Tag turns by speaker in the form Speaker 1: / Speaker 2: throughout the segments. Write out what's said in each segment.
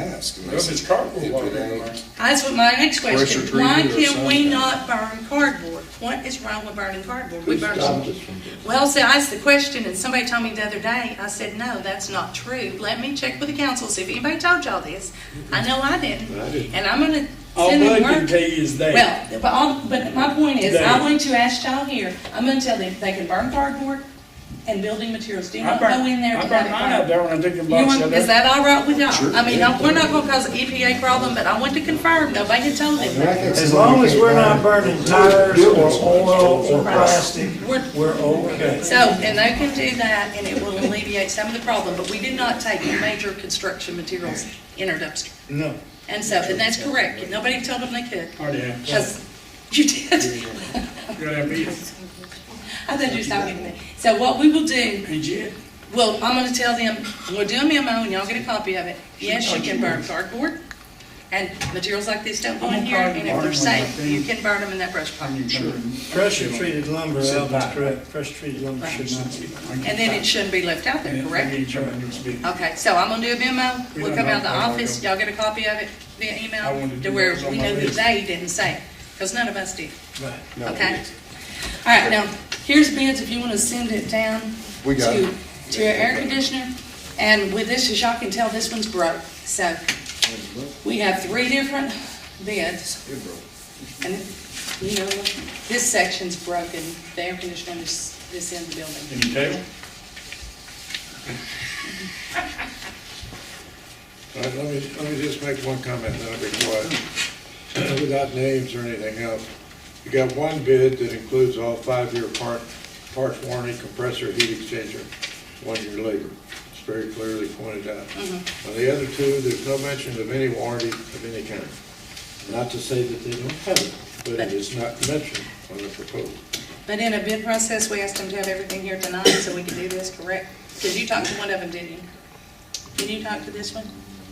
Speaker 1: asking.
Speaker 2: Well, if it's cardboard,
Speaker 1: If
Speaker 2: why
Speaker 1: it
Speaker 2: don't you
Speaker 1: ain't-
Speaker 2: mind?
Speaker 3: That's what my next question,
Speaker 4: treated
Speaker 3: why
Speaker 4: or
Speaker 3: can we
Speaker 4: something.
Speaker 3: not burn cardboard? What is wrong with burning cardboard? We
Speaker 4: Who
Speaker 3: burn
Speaker 4: stopped us from doing
Speaker 3: Well, see, I asked the question, and somebody told me the other day, I said, no, that's not true. Let me check with the council, see if anybody told y'all this. I know I didn't,
Speaker 4: I didn't.
Speaker 3: and I'm gonna
Speaker 2: All
Speaker 3: send
Speaker 2: I
Speaker 3: them
Speaker 2: can tell
Speaker 3: word.
Speaker 2: you is that,
Speaker 3: Well, but all, but my point is,
Speaker 2: They-
Speaker 3: I'm going to ask y'all here, I'm gonna tell them, they can burn cardboard and building materials, do
Speaker 2: I
Speaker 3: not go in
Speaker 2: burned,
Speaker 3: there
Speaker 2: I
Speaker 3: without
Speaker 2: burned
Speaker 3: it
Speaker 2: mine
Speaker 3: burned.
Speaker 2: out there when I took the
Speaker 3: You
Speaker 2: box
Speaker 3: want,
Speaker 2: out there.
Speaker 3: is that all right with y'all?
Speaker 4: Sure.
Speaker 3: I mean, no, we're not gonna cause an EPA problem, but I want to confirm, nobody had told them that.
Speaker 5: As long as we're not burning tires or oil or plastic,
Speaker 3: We're-
Speaker 5: we're okay.
Speaker 3: So, and they can do that, and it will alleviate some of the problem, but we do not take major construction materials in our dumpster.
Speaker 2: No,
Speaker 3: And so, and that's correct, nobody told them they could,
Speaker 2: I didn't.
Speaker 3: because you did.
Speaker 2: You're gonna have
Speaker 3: I thought you were talking to me. So what we will do,
Speaker 2: to eat. Ain't you?
Speaker 3: well, I'm gonna tell them, we'll do a memo, and y'all get a copy of it. Yes, you can burn cardboard, and materials like this don't go in here, and if they're safe, you can burn them in that brush pile.
Speaker 2: I'm sure.
Speaker 5: Pressure treated lumber, Alvin's
Speaker 2: Survive.
Speaker 5: correct, pressure treated lumber should not be.
Speaker 3: And then it shouldn't be left out there, correct?
Speaker 2: correct?
Speaker 3: Okay, so I'm gonna do a memo, we'll come out of the office, y'all get a copy of it via
Speaker 2: I wanted
Speaker 3: email,
Speaker 2: to
Speaker 3: to
Speaker 2: do
Speaker 3: where
Speaker 2: that. It was on
Speaker 3: we
Speaker 2: my
Speaker 3: know that
Speaker 2: list.
Speaker 3: they didn't say it, because none of us did,
Speaker 5: Right.
Speaker 1: No,
Speaker 3: okay? All right, now, here's bids, if you wanna send it down
Speaker 1: We got
Speaker 3: to,
Speaker 1: it.
Speaker 3: to our air conditioner, and with this, as y'all can tell, this one's broke, so we have three different bids,
Speaker 1: it broke.
Speaker 3: and, you know, this section's broken, the air conditioner is, this in the building.
Speaker 2: Can you tell?
Speaker 6: All right, let me, let me just make one comment, then I'll be quiet. Uh, Without names or anything else, you got one bid that includes all five-year part, parts warranty, compressor, heat exchanger, one-year labor. It's very clearly pointed out.
Speaker 3: Mm-hmm.
Speaker 6: On the other two, there's no mention of any warranty of any kind. Not to say that they don't have it, but it is not mentioned on the proposal.
Speaker 3: But in a bid process, we asked them to have everything here tonight so we could do this, correct? Because you talked to one of them, didn't you? Did you talk to this one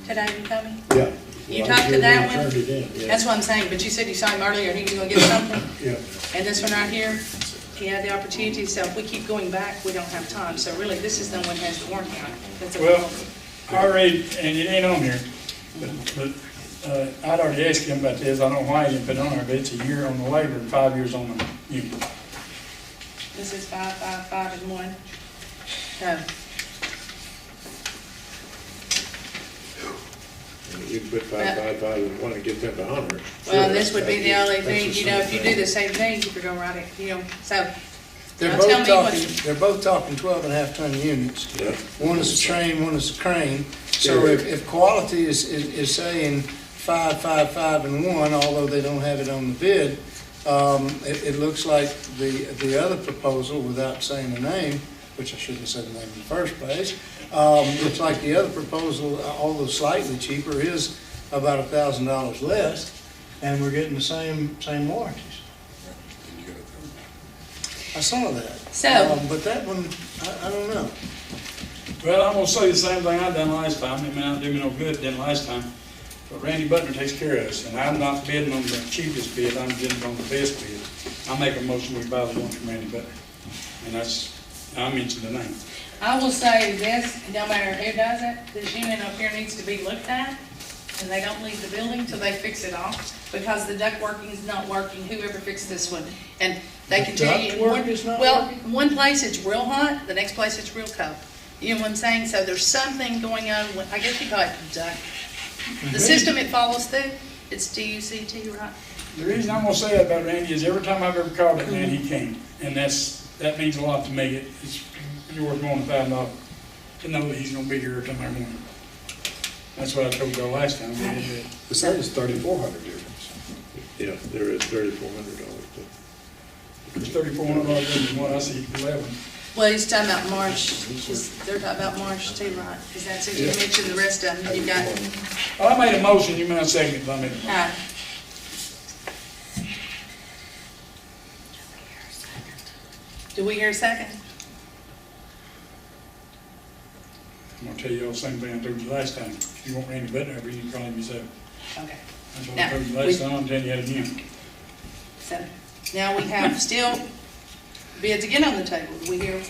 Speaker 3: today, you told me?
Speaker 6: Yeah.
Speaker 3: You
Speaker 6: Well, I'm
Speaker 3: talked
Speaker 6: sure
Speaker 3: to
Speaker 6: they
Speaker 3: that one?
Speaker 6: Turned it in,
Speaker 3: That's
Speaker 6: yeah,
Speaker 3: what I'm saying, but you said you saw him earlier, he was gonna get something,
Speaker 6: yeah.
Speaker 3: and this one right here, he had the opportunity, so if we keep going back, we don't have time. So really, this is the one that has the warranty on it. That's a-
Speaker 2: Well, I read, and it ain't on here, but, but, uh, I'd already asked him about this, I don't know why he didn't put it on there, but it's a year on the labor and five years on the union.
Speaker 3: This is five, five, five, and one. No,
Speaker 6: And You put five, five, five, and one to get them to honor. it.
Speaker 3: well, this would be the only
Speaker 6: That's the
Speaker 3: thing, you know, if you do
Speaker 6: same
Speaker 3: the
Speaker 6: thing.
Speaker 3: same thing, you could go right, it, you know, so.
Speaker 5: They're
Speaker 3: now
Speaker 5: both
Speaker 3: tell me what-
Speaker 5: talking, they're both talking twelve and a half ton units.
Speaker 6: Yeah.
Speaker 5: One is a train, one is a crane. So if, if quality is, is, is saying five, five, five, and one, although they don't have it on the bid, um, it, it looks like the, the other proposal, without saying the name, which I shouldn't have said the name in the first place, um, looks like the other proposal, uh, although slightly cheaper, is about a thousand dollars less, and we're getting the same, same warranties. I saw that.
Speaker 3: So-
Speaker 5: Um, But that one, I, I don't know.
Speaker 2: Well, I'm gonna say the same thing I done last time, it may not do me no good, done last time, but Randy Butler takes care of us, and I'm not bidding on the cheapest bid, I'm bidding on the best bid. I make a motion, we buy the one from Randy Butler, and that's, I mentioned the name.
Speaker 3: I will say this, no matter who does it, this unit up here needs to be looked at, and they don't leave the building till they fix it all, because the duct working is not working, whoever fixed this one, and they can tell you.
Speaker 5: Duct
Speaker 3: in one-
Speaker 5: work is not
Speaker 3: Well, one place it's real hot, the next place it's real cold, you know what I'm saying, so there's something going on, with- I guess you call it duct.
Speaker 5: Mm-hmm.
Speaker 3: The system it follows through, it's D-U-C-T, right?
Speaker 2: The reason I'm gonna say that about Randy is every time I've ever called it, man, he came, and that's, that means a lot to me, It- it's, you're worth more than five dollars to know that he's gonna be here tomorrow morning. That's what I told y'all last time, we did it.
Speaker 1: It's almost thirty-four hundred difference.
Speaker 6: Yeah, there is thirty-four hundred dollars, but.
Speaker 2: there's thirty-four hundred dollars in one, I see eleven.
Speaker 3: Well, he's talking about Marsh, he's- they're talking about Marsh too, right, because that's, who you mentioned the rest of them, you got.
Speaker 2: I made a motion, you might second it, I made a motion.
Speaker 3: Aye. Do we hear a second?
Speaker 2: I'm gonna tell y'all the same thing I told you last time, if you want Randy Butler, you can call him yourself.
Speaker 3: Okay.
Speaker 2: That's what I told you last time, I'm telling you that again.
Speaker 3: So now we have still bids again on the table. Do we hear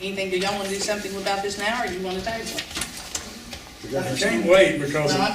Speaker 3: anything? Do y'all want to do something about this now or do you want to table it?
Speaker 2: I can't wait because.
Speaker 3: Well,
Speaker 2: of-
Speaker 3: I'm